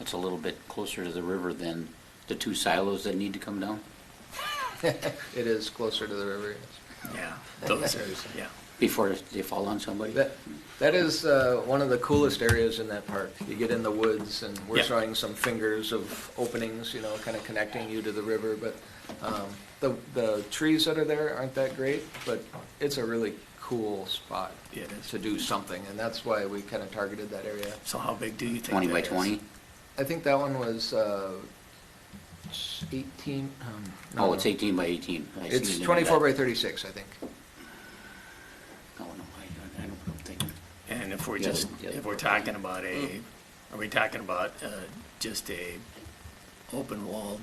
it's a little bit closer to the river than the two silos that need to come down? It is closer to the river, yes. Yeah, those are, yeah. Before they fall on somebody? That, that is uh, one of the coolest areas in that park. You get in the woods and we're Yeah. showing some fingers of openings, you know, kind of connecting you to the river, but um, the, the trees that are there aren't that great, but it's a really cool spot Yeah, it is. to do something, and that's why we kind of targeted that area. So how big do you think? Twenty that by is? twenty? I think that one was uh, 18. um, Oh, it's eighteen by eighteen. I seen it It's in the 24 by back. 36, I think. Oh, no, I, I don't I don't think. And if we're Yeah, just, yeah. Mm. if we're talking about a, are we talking about uh, just a open wall?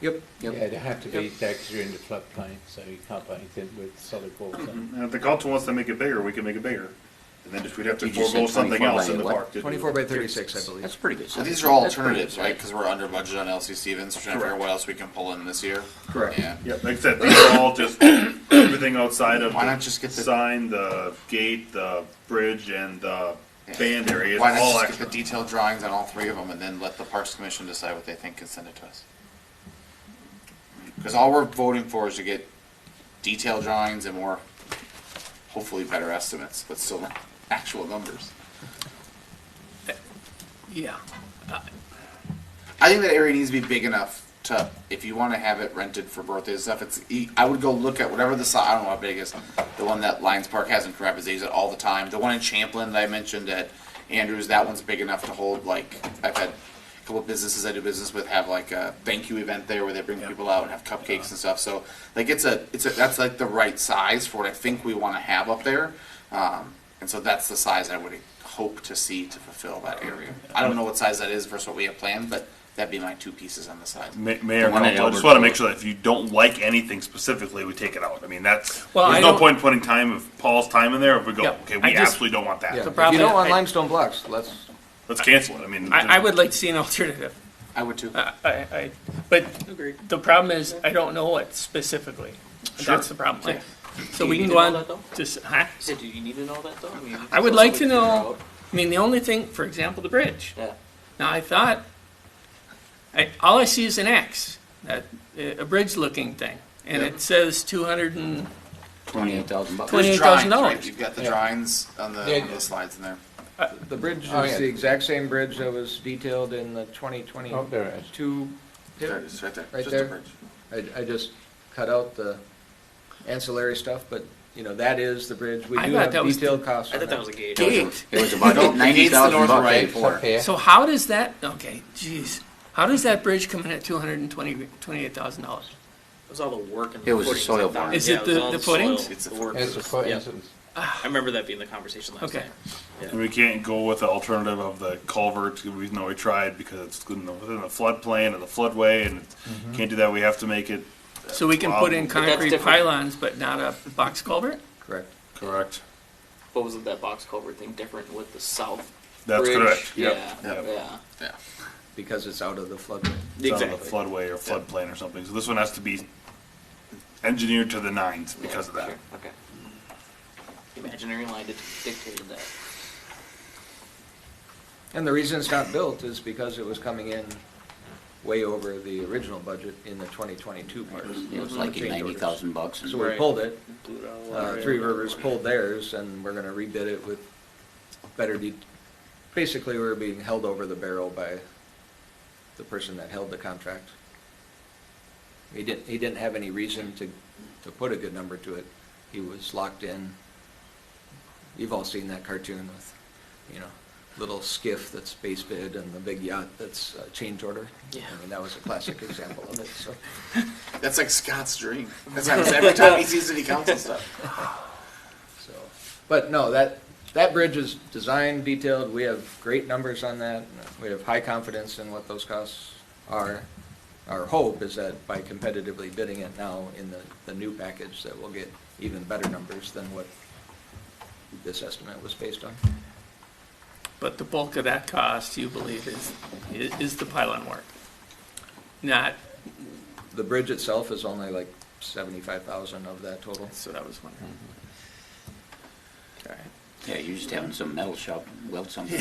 Yep. Yep. Yeah, it'd have to be Yep. there because you're in the floodplain, so you can't put anything with solid walls on. And if the council wants to make it bigger, we can make it bigger. And then just, we'd have to You just forego said something 24 else by in the what? park. to do. 24 by 36, I believe. That's pretty good So size. these are all That's pretty good alternatives, right? size. Because we're under budget on LC Stevens, we're trying to figure out Correct. what else we can pull in this year. Correct. Yeah. Yeah, like I said, these are all just everything outside of. Why not the just get the- Sign, the gate, the bridge, and the Yeah. band area is Why not all just get extra. the detailed drawings on all three of them and then let the Parks Commission decide what they think and send it to us? Because all we're voting for is to get detailed drawings and more, hopefully better estimates, but still not actual numbers. Yeah, Mm-hmm. I think that area needs to be big enough to, if you want to have it rented for birthdays and stuff, it's, e- I would go look at whatever the size, I don't know how big it is, the one that Lions Park has in Carapace, they use it all the time. The one in Champlin that I mentioned at Andrews, that one's big enough to hold, like, I've had a couple of businesses I do business with have like a thank you event there where they bring people out and have cupcakes and stuff. So, like, it's a, it's a, that's like the right size for what I think we want to have up there. Um, and so that's the size I would hope to see to fulfill that area. I don't know what size that is versus what we have planned, but that'd be my two pieces on the side. Ma- Mayor, The one at Council, I just Albert want to make Court. sure that if you don't like anything specifically, we take it out. I mean, that's, Well, I there's no don't- point in putting time of Paul's time in there if we go, Yeah, okay, I we just- absolutely don't want Yeah. that. If you problem- don't want I- limestone blocks, let's, Let's cancel it. I mean. I, I would like to see an alternative. I would too. I, I, I- but the problem is, I don't know what specifically. That's the problem. So we can go on, just, huh? do you need to know that though? I mean, I would like to know, I mean, the only thing, for example, the bridge. Yeah. Now, I thought, I, all I see is an X, that, a bridge-looking thing, and it says two hundred and, Twenty-eight thousand bucks. Twenty- $28,000 There's drawings, right? dollars. You've got the Yeah. drawings on the, Yeah. on the slides in there. the bridge is Oh, yeah. the exact same bridge that was detailed in the Oh, there it 2022. There it is, right there. Right Just there. a bridge. I, I just cut out the ancillary stuff, but, you know, that is the bridge. We I do thought have that was the- detailed costs on that. a gate. Gate. It was about the ninety gate's the thousand north bucks. right. right? It's up here. so how does that, okay, jeez, how does that bridge come in at two hundred and twenty, twenty-eight thousand dollars? It was all the work and It was the footings soil and that. barn. Is Yeah, it was the- all the footings? soil, It's the the work. It's a foot Yeah. instance. I remember that being the conversation last Okay. time. And we can't go with the alternative of the culvert, we know we tried, because it's in the- within the floodplain and the floodway, and can't do that, we have to make it So we can put in But that's concrete different. pylons, but not a box culvert? Correct. correct. What was it, that box culvert thing different with the south? That's bridge? correct, yep. Yeah, yep. yeah. Yeah. Because it's out of the floodway. It's on the Exactly. floodway or floodplain or something, so this one has to be engineered to the nines because of Sure, that. Okay. Imaginary line dict- dictated that. And the reason it's not built is because it was coming in way over the original budget in the 2022 part. It was like Change ninety orders. thousand bucks. and- So we pulled it, uh, Three Rivers pulled theirs, and we're gonna rebid it with better de, basically, we were being held over the barrel by the person that held the contract. He didn't, he didn't have any reason to, to put a good number to it. He was locked in. You've all seen that cartoon with, you know, little skiff that's base bid and the big yacht that's uh, change order. Yeah. I mean, that was a classic example of it, so. That's like Scott's dream. That's what happens every time he sees city council stuff. So, but no, that, that bridge is designed, detailed, we have great numbers on that. We have high confidence in what those costs are. Our hope is that by competitively bidding it now in the, the new package, that we'll get even better numbers than what this estimate was based on. But the bulk of that cost, you believe, is, i- is the pylon work? Not, The bridge itself is only like seventy-five thousand of that total. so that was wondering. All right. Yeah, you're just having some metal shop weld something.